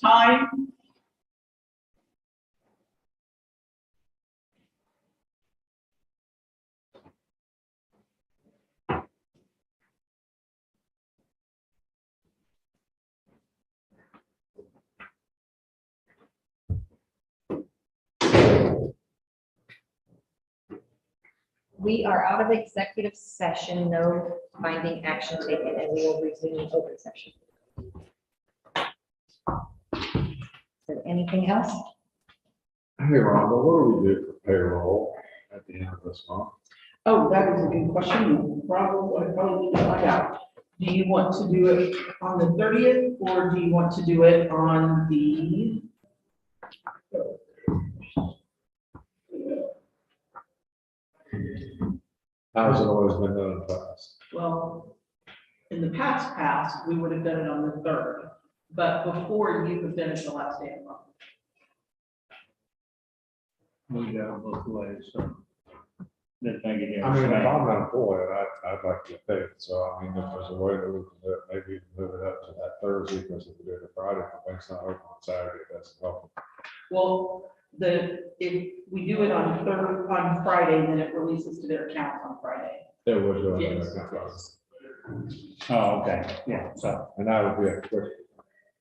time. We are out of executive session, no finding action taken, and we will resume open session. So anything else? Hey, Rhonda, what do we do for payroll at the end of this month? Oh, that is a good question. Probably, probably find out. Do you want to do it on the thirtieth or do you want to do it on the? How's it always been done in the past? Well, in the past past, we would have done it on the third, but before you have finished the last day of the month. We got it both ways, so. That thing again. I mean, if I'm an employee, I, I'd like to get paid, so I mean, if there's a way that we can do it, maybe we can move it up to that Thursday, because if we do it Friday, the bank's not open on Saturday, that's helpful. Well, the, if we do it on third, on Friday, then it releases to their accounts on Friday. It would go in Yes. there, that's- Oh, okay, yeah, so, and that would be a quick,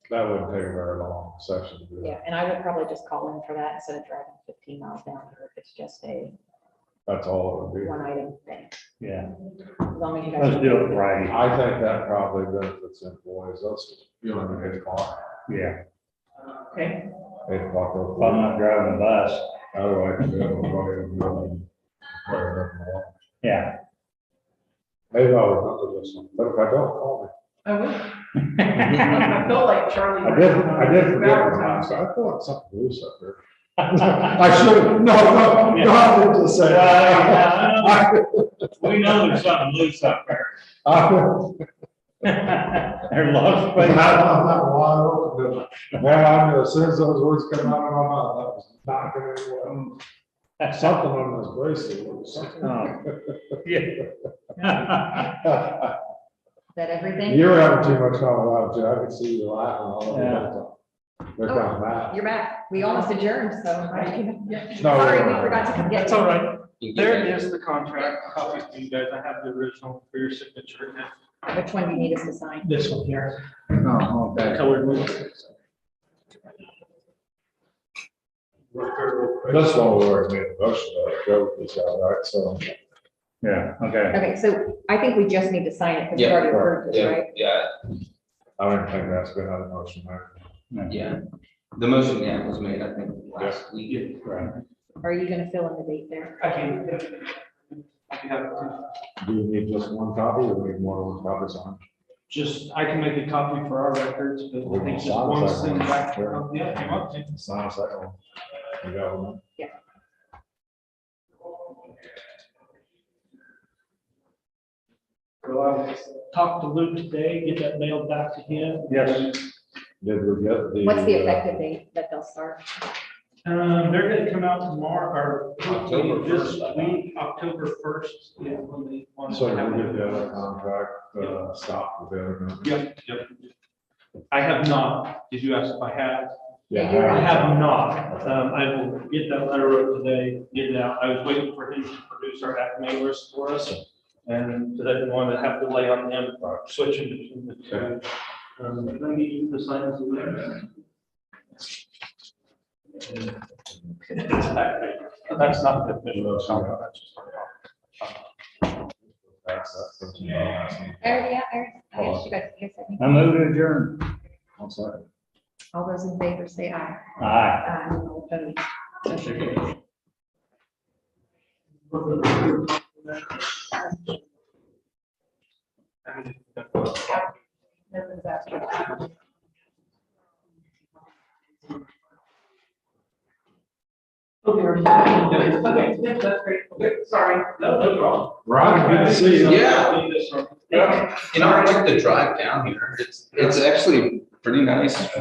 that wouldn't take a very long session to do Yeah, that. and I would probably just call in for that instead of driving fifteen miles down here if it's just a That's all it would one item thing. yeah, As long as you guys. let's do it be. right, I think that probably benefits employees, that's, you know, at eight o'clock, yeah. Okay, eight o'clock. If I'm not driving a bus, Otherwise, you have a problem, um, whatever you want. yeah. Maybe I would not do this one, but if I don't, call I would. I I felt like Charlie. me. I did, I did forget one time, so I thought something loose up there. I should, no, no, no, I didn't just say. Yeah, I- We know there's something loose up there. I- I'm There's a lot of not- I'm space. not wide open, but Man, I knew as soon as those words come out of my mouth, that was not gonna, be well. something on this bracelet, or something. Oh, Yeah. Is that everything? You're having too much fun without you, I can see you laughing all over. Oh, They're kind of mad. You're back. We almost adjourned, so. No. Sorry, we forgot to come get That's you. all right. There is the contract. Copy for you guys. I have the original for your signature. and Which one do you need us to sign? This one here, Oh, that colored one. That's why we already made a motion to go with this out, right, so. Yeah, okay, Okay, so I think we just need to sign it because we've Yeah, already approved this, Yeah, right? yeah, I don't think that's been out of motion, right? yeah. The motion, yeah, was made, I think, last week. right. Are you gonna fill in the date there? I can. I can have it. Do you need just one copy or we need more than one copies on? Just, I can make a copy for our records, but We I can think just sign one that thing one. back. Yeah, if you want to. Sign us that one. You got one? Yeah. Well, I talked to Luke today, get that mailed back to him. Yes. Did we get the? What's the uh, effective date that they'll start? Um, they're gonna come out tomorrow, or hopefully October this 1st, I think. week, October first, yeah, when they want So to did have we get the other it. contract, uh, stop with the other? company? Yep, yep. I have not, did you ask if I have? Yeah, Yeah, you're I right. have not, um, I will get that letter wrote today, get it out, I was waiting for him to produce our app mailers for us. And I didn't want to have delay on him, switching between the two. Um, let me get you the signs of there. That's not the official contract, that's just our contract. That's, that's. that's what I'm asking. Eric, yeah, Eric, I guess you guys, you guys have any- I move to adjourn. I'm sorry. all those in favor say aye. Aye. Aye. All opposed. Motion carries. Okay, Yeah, that's great. Okay, Sorry. no, no problem. Ron, good to see you. Yeah. Yeah. You know, I like the drive down here, it's, it's actually pretty nice.